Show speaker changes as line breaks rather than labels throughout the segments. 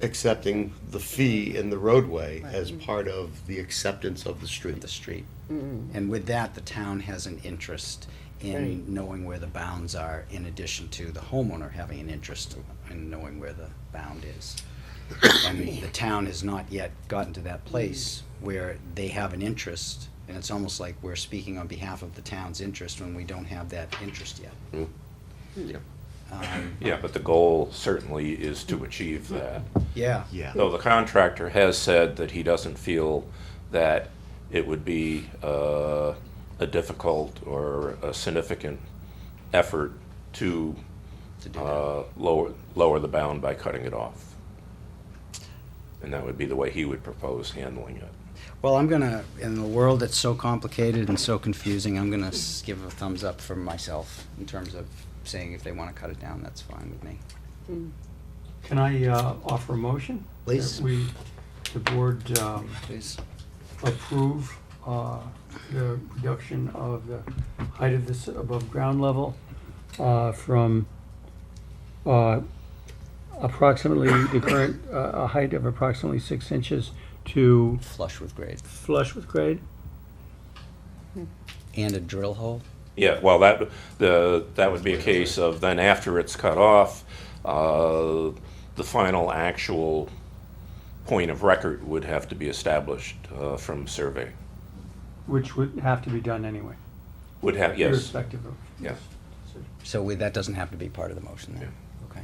accepting the fee in the roadway as part of the acceptance of the street.
the street. And with that, the town has an interest
Right.
in knowing where the bounds are, in addition to the homeowner having an interest in knowing where the bound is. And the town has not yet gotten to that place where they have an interest, and it's almost like we're speaking on behalf of the town's interest when we don't have that interest yet.
Yeah, but the goal certainly is to achieve that.
Yeah.
Yeah.
Though the contractor has said that he doesn't feel that it would be uh, a difficult or a significant effort to
To do that.
uh, lower, lower the bound by cutting it off. And that would be the way he would propose handling it.
Well, I'm gonna, in a world that's so complicated and so confusing, I'm gonna s- give a thumbs up for myself in terms of saying if they wanna cut it down, that's fine with me.
Can I uh, offer a motion?
Please.
That we, the board um,
Please.
approve uh, the reduction of the height of this above ground level uh, from uh, approximately, the current, uh, a height of approximately six inches to
Flush with grade.
flush with grade?
And a drill hole?
Yeah, well, that, the, that would be a case of then after it's cut off, uh, the final actual point of record would have to be established, uh, from survey.
Which would have to be done anyway.
Would have, yes,
Irrespective of.
yes.
So we, that doesn't have to be part of the motion then? Okay.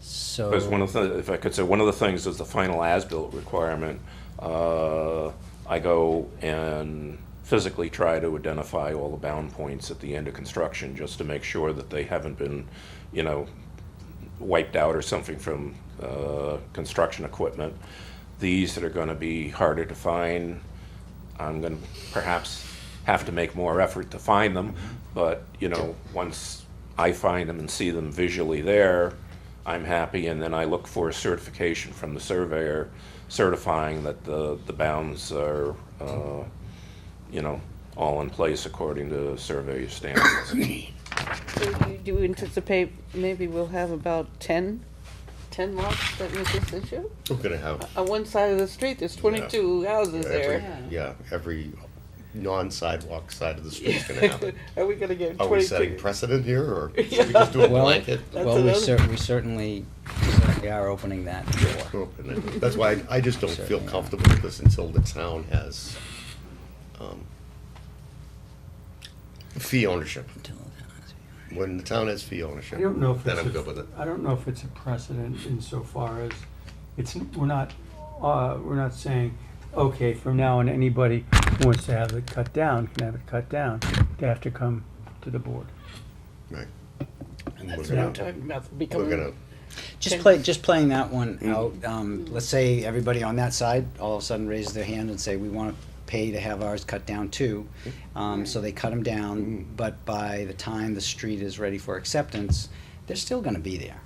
So.
Because one of the, if I could say, one of the things is the final as-built requirement. Uh, I go and physically try to identify all the bound points at the end of construction, just to make sure that they haven't been, you know, wiped out or something from uh, construction equipment. These that are going to be harder to find, I'm going to perhaps have to make more effort to find them, but, you know, once I find them and see them visually there, I'm happy, and then I look for a certification from the surveyor certifying that the, the bounds are, uh, you know, all in place according to surveyor standards.
Do you- Do you anticipate maybe we'll have about 10, 10 lots that meet this issue?
We're gonna have,
On one side of the street, there's 22 houses
every,
there.
yeah, every non-sidewalk side of the street's gonna have it.
Are we gonna get
Are we setting
22?
precedent here, or should we just do a
Well,
blanket?
Well, we
another-
cer- we certainly, we certainly are opening that door.
Open it. That's why I, I just don't feel comfortable with this until the town has, um, fee ownership. When the town has fee ownership,
I don't know if
then
it's
I'm
a-
good with it.
I don't know if it's a precedent insofar as, it's, we're not, uh, we're not saying, okay, from now on, anybody who wants to have it cut down, can have it cut down, they have to come to the board.
Right. And we're
That's what I'm
gonna,
talking about,
we're
becoming,
gonna,
Just
Okay.
play, just playing that one
Mm.
out, um, let's say everybody on that side all of a sudden raises their hand and say, we wanna pay to have ours cut down too.
Mm-hmm.
Um, so they cut them down,
Mm.
but by the time the street is ready for acceptance, they're still gonna be there.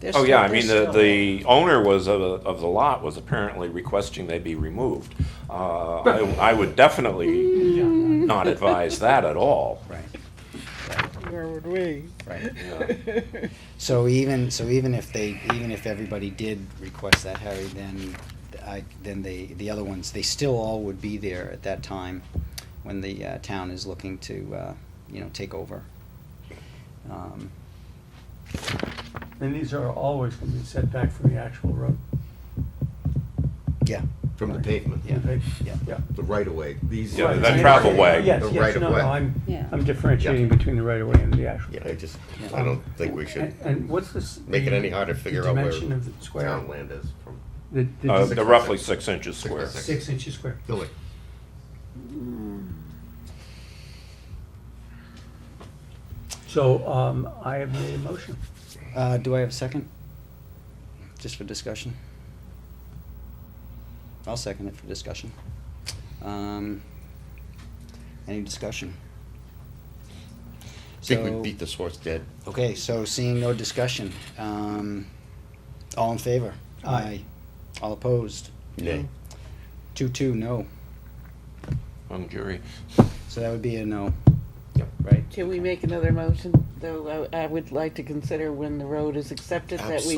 They're
Oh,
still-
yeah, I
they're
mean, the,
still-
the owner was, of, of the lot was apparently requesting they be removed. Uh, I, I would definitely
Yeah.
not advise that at all.
Right,
where would we?
right. So even, so even if they, even if everybody did request that, Harry, then I, then they, the other ones, they still all would be there at that time when the, uh, town is looking to, uh, you know, take over. Um,
And these are always gonna be set back from the actual road.
Yeah,
from the pavement,
Yeah.
They-
Yeah.
Yeah.
the right of way, these.
Yeah,
are-
Right.
the travel way.
Yes,
The
yes,
right of
no,
way.
no, I'm,
Yeah.
I'm differentiating
Yeah.
between the right of way and the actual.
Yeah, I just, I don't think we should
And, and what's this?
make it
the-
any harder to
the
figure out where
Dimension of the square,
town land is from.
the, the
Uh,
dis-
they're roughly six inches square.
six inches square.
Billy.
So, um, I have made a motion.
uh, do I have a second? Just for discussion? I'll second it for discussion. Um, any discussion?
I think
So-
we beat this horse dead.
Okay, so seeing no discussion, um, all in favor?
Aye.
All opposed?
Nay.
Two, two, no.
I'm jury.
So that would be a no.
Yep.
Right?
Can we make another motion, though I, I would like to consider when the road is accepted that we